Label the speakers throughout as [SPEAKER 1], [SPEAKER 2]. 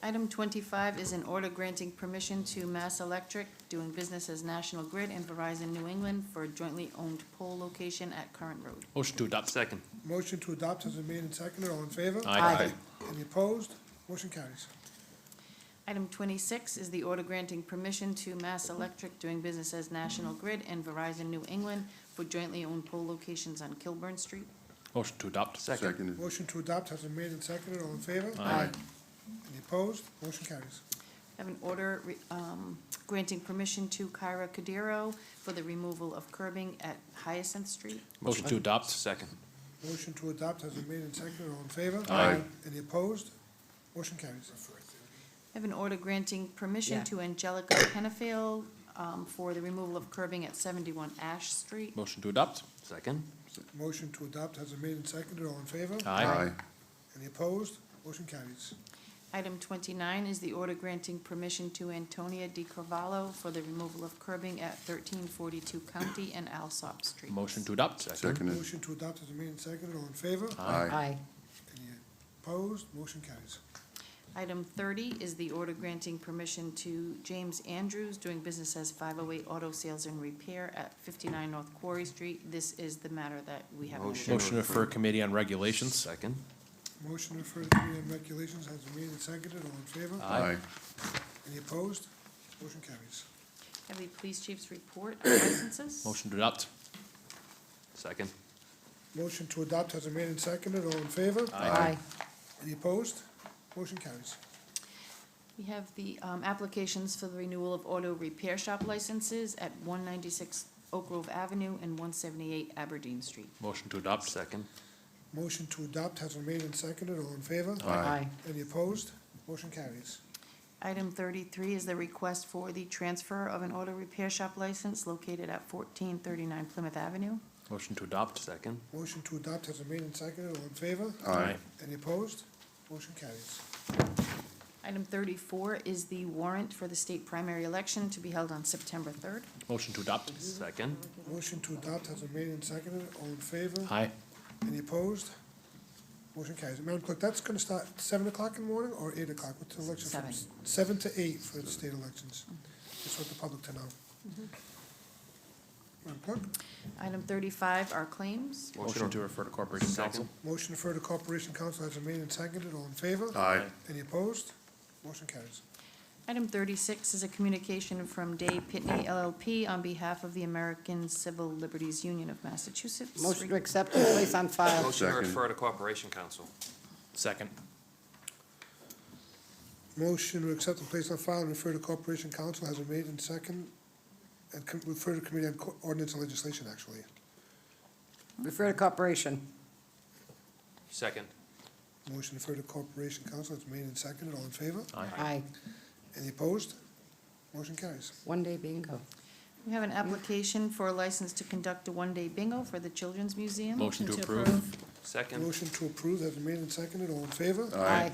[SPEAKER 1] Item twenty-five is an order granting permission to Mass Electric, doing business as National Grid and Verizon New England for a jointly owned pole location at Current Road.
[SPEAKER 2] Motion to adopt. Second.
[SPEAKER 3] Motion to adopt has been made and seconded. All in favor?
[SPEAKER 1] Aye.
[SPEAKER 3] Any opposed? Motion carries.
[SPEAKER 1] Item twenty-six is the order granting permission to Mass Electric, doing business as National Grid and Verizon New England for jointly owned pole locations on Kilburn Street.
[SPEAKER 2] Motion to adopt. Second.
[SPEAKER 4] Seconded.
[SPEAKER 3] Motion to adopt has been made and seconded. All in favor?
[SPEAKER 2] Aye.
[SPEAKER 3] Any opposed? Motion carries.
[SPEAKER 1] I have an order re- um, granting permission to Kyra Cudero for the removal of curbing at Hyacinth Street.
[SPEAKER 2] Motion to adopt. Second.
[SPEAKER 3] Motion to adopt has been made and seconded. All in favor?
[SPEAKER 2] Aye.
[SPEAKER 3] Any opposed? Motion carries.
[SPEAKER 1] I have an order granting permission
[SPEAKER 5] Yeah.
[SPEAKER 1] to Angelica Penafiel um, for the removal of curbing at seventy-one Ash Street.
[SPEAKER 2] Motion to adopt. Second.
[SPEAKER 3] Motion to adopt has been made and seconded. All in favor?
[SPEAKER 2] Aye.
[SPEAKER 3] Any opposed? Motion carries.
[SPEAKER 1] Item twenty-nine is the order granting permission to Antonia Di Carvalho for the removal of curbing at thirteen forty-two County and Alsop Street.
[SPEAKER 2] Motion to adopt. Second.
[SPEAKER 4] Seconded.
[SPEAKER 3] Motion to adopt has been made and seconded. All in favor?
[SPEAKER 4] Aye.
[SPEAKER 5] Aye.
[SPEAKER 3] Any opposed? Motion carries.
[SPEAKER 1] Item thirty is the order granting permission to James Andrews, doing business as five oh eight Auto Sales and Repair at fifty-nine North Quarry Street. This is the matter that we have. on the agenda.
[SPEAKER 2] Motion to refer committee on regulations. Second.
[SPEAKER 3] Motion to refer to committee on regulations has been made and seconded. All in favor?
[SPEAKER 2] Aye.
[SPEAKER 3] Any opposed? Motion carries.
[SPEAKER 1] Have the police chief's report on licenses.
[SPEAKER 2] Motion to adopt. Second.
[SPEAKER 3] Motion to adopt has been made and seconded. All in favor?
[SPEAKER 5] Aye.
[SPEAKER 3] Any opposed? Motion carries.
[SPEAKER 1] We have the um, applications for the renewal of auto repair shop licenses at one ninety-six Oak Grove Avenue and one seventy-eight Aberdeen Street.
[SPEAKER 2] Motion to adopt. Second.
[SPEAKER 3] Motion to adopt has been made and seconded. All in favor?
[SPEAKER 5] Aye.
[SPEAKER 3] Any opposed? Motion carries.
[SPEAKER 1] Item thirty-three is the request for the transfer of an auto repair shop license located at fourteen thirty-nine Plymouth Avenue.
[SPEAKER 2] Motion to adopt. Second.
[SPEAKER 3] Motion to adopt has been made and seconded. All in favor?
[SPEAKER 2] Aye.
[SPEAKER 3] Any opposed? Motion carries.
[SPEAKER 1] Item thirty-four is the warrant for the state primary election to be held on September third.
[SPEAKER 2] Motion to adopt. Second.
[SPEAKER 3] Motion to adopt has been made and seconded. All in favor?
[SPEAKER 2] Aye.
[SPEAKER 3] Any opposed? Motion carries. Madam Clerk, that's gonna start at seven o'clock in the morning or eight o'clock with the election? from
[SPEAKER 1] Seven.
[SPEAKER 3] s- Seven to eight for the state elections. Just want the public to know. Madam Clerk,
[SPEAKER 1] Item thirty-five are claims.
[SPEAKER 2] Motion to refer to corporation council.
[SPEAKER 3] motion to refer to Corporation Council has been made and seconded. All in favor?
[SPEAKER 4] Aye.
[SPEAKER 3] Any opposed? Motion carries.
[SPEAKER 1] Item thirty-six is a communication from Day Pitney LLP on behalf of the American Civil Liberties Union of Massachusetts.
[SPEAKER 5] Motion to accept and place on file.
[SPEAKER 6] Motion to
[SPEAKER 4] Second.
[SPEAKER 6] refer to Corporation Council.
[SPEAKER 2] Second.
[SPEAKER 3] Motion to accept and place on file and refer to Corporation Council has been made and second, and com- refer to Committee on Co- Ordinance and Legislation, actually.
[SPEAKER 5] Refer to corporation.
[SPEAKER 6] Second.
[SPEAKER 3] Motion to refer to Corporation Council has been made and seconded. All in favor?
[SPEAKER 5] Aye.
[SPEAKER 3] Any opposed? Motion carries.
[SPEAKER 5] One day bingo.
[SPEAKER 1] We have an application for a license to conduct a one-day bingo for the Children's Museum.
[SPEAKER 2] Motion to approve.
[SPEAKER 6] Second.
[SPEAKER 3] Motion to approve has been made and seconded. All in favor?
[SPEAKER 4] Aye.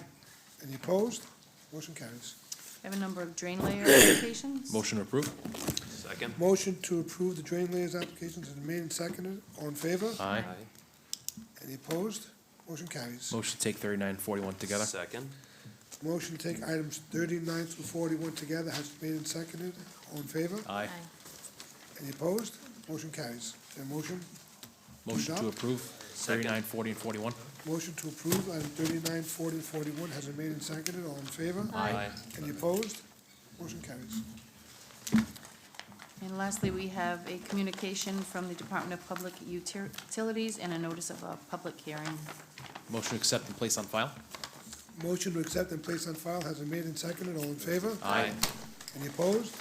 [SPEAKER 3] Any opposed? Motion carries.
[SPEAKER 1] We have a number of drain layer applications.
[SPEAKER 2] Motion to approve.
[SPEAKER 6] Second.
[SPEAKER 3] Motion to approve the drain layers applications has been made and seconded. All in favor?
[SPEAKER 2] Aye.
[SPEAKER 3] Any opposed? Motion carries.
[SPEAKER 2] Motion to take thirty-nine and forty-one together.
[SPEAKER 6] Second.
[SPEAKER 3] Motion to take items thirty-nine through forty-one together has been made and seconded. All in favor?
[SPEAKER 2] Aye.
[SPEAKER 3] Any opposed? Motion carries. Is there a motion?
[SPEAKER 2] Motion to
[SPEAKER 3] Adopt.
[SPEAKER 2] approve thirty-nine, forty, and forty-one.
[SPEAKER 3] Motion to approve item thirty-nine, forty, and forty-one has been made and seconded. All in favor?
[SPEAKER 6] Aye.
[SPEAKER 3] Any opposed? Motion carries.
[SPEAKER 1] And lastly, we have a communication from the Department of Public Util- Utilities and a notice of a public hearing.
[SPEAKER 2] Motion to accept and place on file.
[SPEAKER 3] Motion to accept and place on file has been made and seconded. All in favor?
[SPEAKER 6] Aye.
[SPEAKER 3] Any opposed?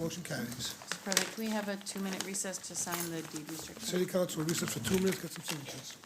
[SPEAKER 3] Motion carries.
[SPEAKER 1] Mr. President, can we have a two-minute recess to sign the deed restriction?
[SPEAKER 3] City Council, recess for two minutes, get some signatures.